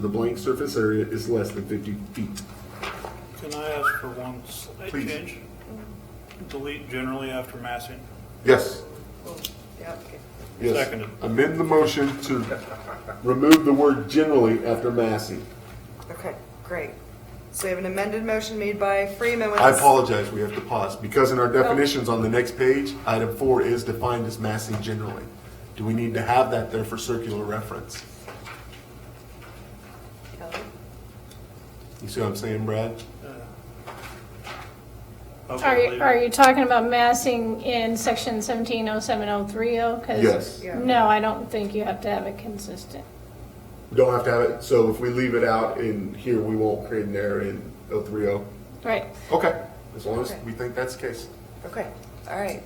The blank surface area is less than 50 feet. Can I ask for one slight Please. change? Delete generally after massing. Yes. Yeah, okay. Yes. Seconded. Amend the motion to remove the word generally after massing. Okay, great. So we have an amended motion made by Freeman with. I apologize, we have to pause, because in our definitions on the next page, item four is defined as massing generally. Do we need to have that there for circular reference? Kelly? You see what I'm saying, Brad? I will Are leave you, it. are you talking about massing in section seventeen oh seven oh three oh? Yes. Yeah. No, I don't think you have to have it consistent. Don't have to have it, so if we leave it out in here, we won't create an error in 030? Right. Okay, as long as Okay. we think that's the case. Okay, all right.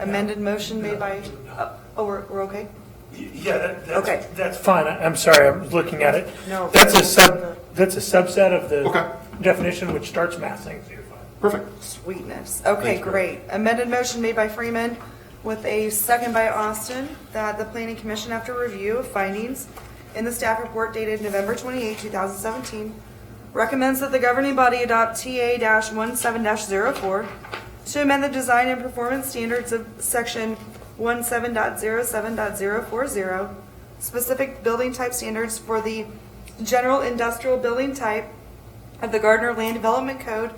Amended motion made by, uh, oh, we're, we're okay? Yeah, that- Okay. that's, that's fine. I- I'm sorry, I was looking at it. No. That's a sub, that's a subset of Okay. the definition which starts massing. Perfect. Sweetness. Okay, Thanks, great. Amended motion made by Freeman with a second by Austin that the planning commission, after review of findings in the staff report dated November 28, 2017, recommends that the governing body adopt TA-17-04 to amend the design and performance standards of section 17.07.040, specific building type standards for the general industrial building type of the Gardner Land Development Code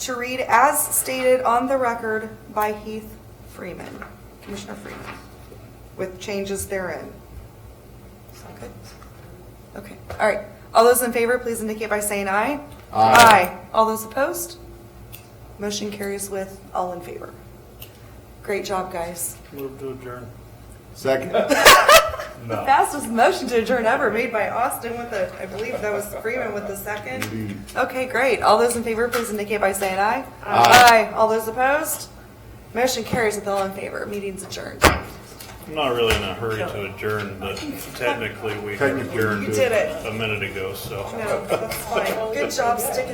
to read as stated on the record by Heath Freeman, Commissioner Freeman, with changes therein. Sound good? Okay, all right. All those in favor, please indicate by saying aye. Aye. All those opposed? Motion carries with all in favor. Great job, guys. Move to adjourn. Second? Fastest motion to adjourn ever made by Austin with the, I believe that was Freeman with the second. Indeed. Okay, great. All those in favor, please indicate by saying aye. Aye. All those opposed? Motion carries with all in favor. Meeting's adjourned. I'm not really in a hurry to adjourn, but technically we Technically, you adjourned did. Did it. a minute ago, so. No, that's fine. Good job sticking